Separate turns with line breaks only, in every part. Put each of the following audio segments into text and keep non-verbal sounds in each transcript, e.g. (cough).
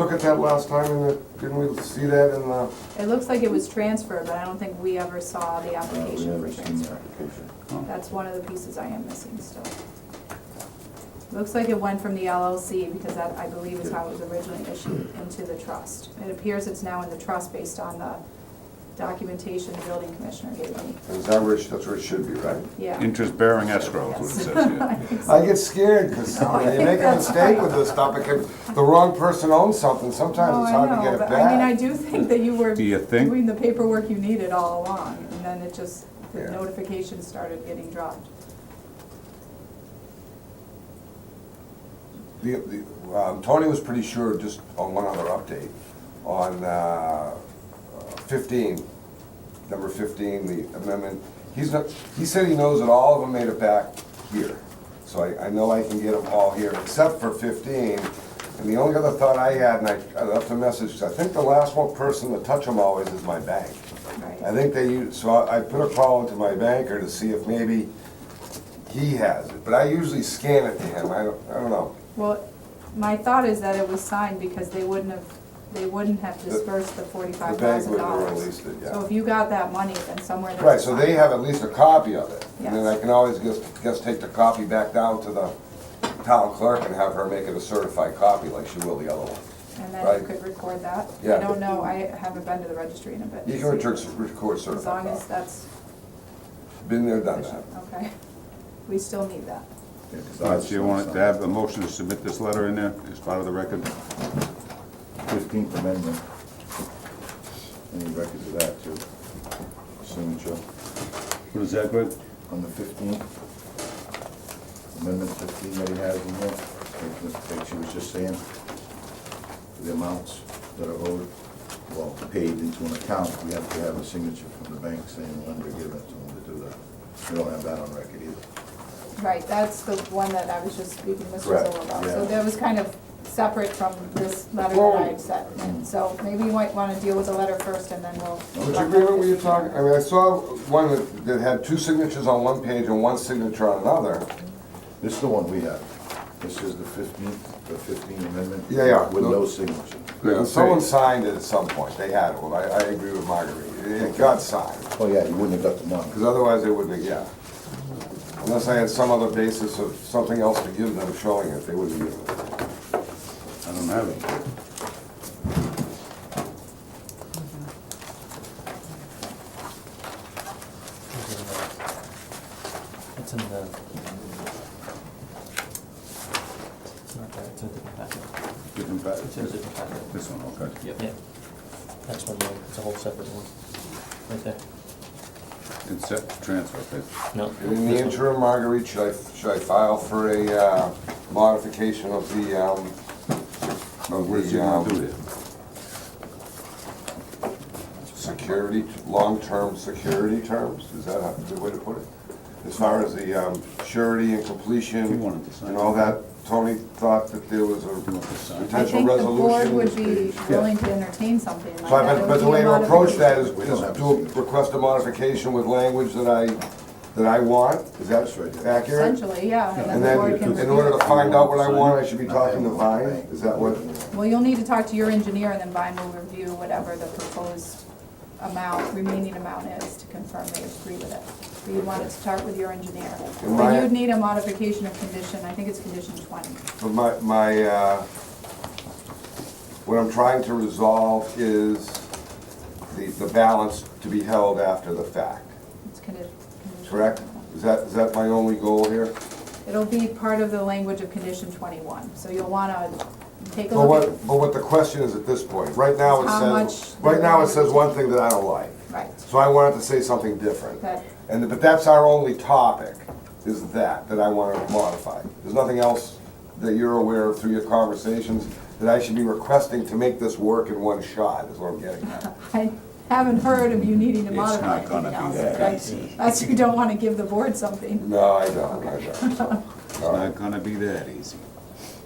Look at that last time, and it- didn't we see that in the,
It looks like it was transferred, but I don't think we ever saw the
Uh, we
application
haven't
for
seen the
transfer.
application.
Oh.
That's one of the pieces I am missing still. Looks like it went from the LLC, because that, I believe, is how it was originally issued, into the trust. It appears it's now in the trust based on the documentation the building commissioner gave me.
is that where, it- that's where it should be, right?
Yeah.
Interest-bearing escrow is what it
Yes.
says,
(laughs)
yeah.
I get scared, because they make a mistake with this stuff, because the wrong person owns something, sometimes
Oh,
it's
I
hard to get
know,
it
but I mean, I
back.
do think that you were
Do you think?
doing the paperwork you needed all along, and then it just, the
Yeah.
notification started getting dropped.
The, the, um, Tony was pretty sure, just on one other update, on, uh, fifteen, number fifteen, the amendment, he's not, he said he knows that all of them made it back here. So I, I know I can get them all here, except for fifteen, and the only other thought I had, and I, I left a message, 'cause I think the last one person to touch them always is my bank. I
Right,
think they use, so I I put a call into my banker to see if maybe he has it, but I usually scan it to him, I don't, I don't know.
well, my thought is that it was signed because they wouldn't have, they wouldn't have dispersed the forty-five
The bank
thousand
would have
dollars.
released it,
So
yeah.
if you got that money, then somewhere there's. a
Right, so they
sign.
have at least a copy of it, and then
Yes.
I can always just, just take the copy back down to the town clerk and have her make it a certified copy like she will the other one.
And then you
right.
could record that.
Yeah.
I don't know, I haven't been to the registry in a bit.
You can return- record
As long
certified
as
copy.
that's
Been there, done that.
efficient, okay. We still need that.
Yeah, 'cause
Uh,
ours
Do you
is
want to
not
have a motion to submit this letter in there as part of the record?
signed. Fifteenth Amendment. Any records of that too? Signature
What is that, Greg?
on the fifteenth. Amendment fifteen that he has in here, like- like she was just saying. The amounts that are owed, well, paid into an account, we have to have a signature from the bank saying when they're giving it to them to do that. We don't have that on record either.
Right, that's the one that I was just speaking to Mr.
Correct,
Zoll about.
yeah.
So that was kind of separate from this letter that I had sent. And so maybe you might want to deal with the letter first and then we'll.
Which agreement were you talking, I mean, I saw one that- that had two signatures on one page and one signature on another.
This is the one we have. This is the fifteenth, the fifteenth amendment.
Yeah, yeah.
With no signature.
And Someone signed it at some point, they had it, well, I, I agree with Marguerite, It- it got signed.
Oh, yeah, you wouldn't have got the money.
Because otherwise they wouldn't, have- yeah. Unless I had some other basis of something else to give them showing it, they wouldn't give it.
I don't have it.
It's in the. It's not that, it's a different packet.
Different pa-
It's in a different packet.
This one, okay.
Yeah. That's one, more. it's a whole separate one. Right there.
It's set to transfer, okay.
No.
And in the
this one.
interim, Marguerite, should I, should I file for a uh, modification of the, um,
Well, What
of
is he
the,
gonna do
um,
there?
security, long-term security terms? Is that a good way to put it? As far as the um, surety and
He
completion
wanted to sign.
and all that, Tony thought that there was a
You want to sign?
I
potential
think the board
resolution.
would be willing to entertain something like
So I,
that.
but,
It would
but the
be a
way to approach that is,
We don't have
is to
to.
request a modification with language that I, that I want, is that
That's right.
accurate?
Essentially, yeah,
And
and then the
then,
board can
in
review
order to
it.
find out what I want, I should be talking to Vine, is that what?
Well, you'll need to talk to your engineer and then Vine will review whatever the proposed amount, remaining amount is to confirm they agree with it. So you want to start with your engineer.
And
But
my-
you'd need a modification of condition, I think it's condition twenty.
But my, my, uh, what I'm trying to resolve is the, the balance to be held after the fact,
It's condi- condition.
correct? Is that, is that my only goal here?
It'll be part of the language of condition twenty-one, so you'll wanna take a
But
look
what, but what the question is at this point, right now
How
it says,
much-
right now it says one thing that I don't like.
at, right,
So I wanted to say something different.
that,
And, but that's our only topic, is that, that I want to modify. There's nothing else that you're aware of through your conversations that I should be requesting to make this work in one shot, is what I'm getting at.
I haven't heard of you needing to
It's
modify
not gonna
anything
be
else.
that
right? Unless you don't wanna give the board something.
No, I don't, I don't. so,
It's
all right.
not gonna be that easy.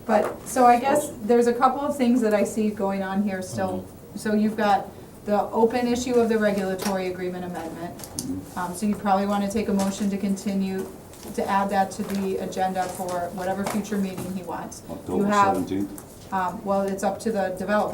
But, so I guess there's a couple of things that I see going on here still.
Mm-hmm.
So you've got the open issue of the regulatory agreement amendment.
Mm-hmm.
Um, so you probably wanna take a motion to continue, to add that to the agenda for whatever future meeting he wants. You
October
have
seventeenth?
Um, Um, Well, it's up to the developer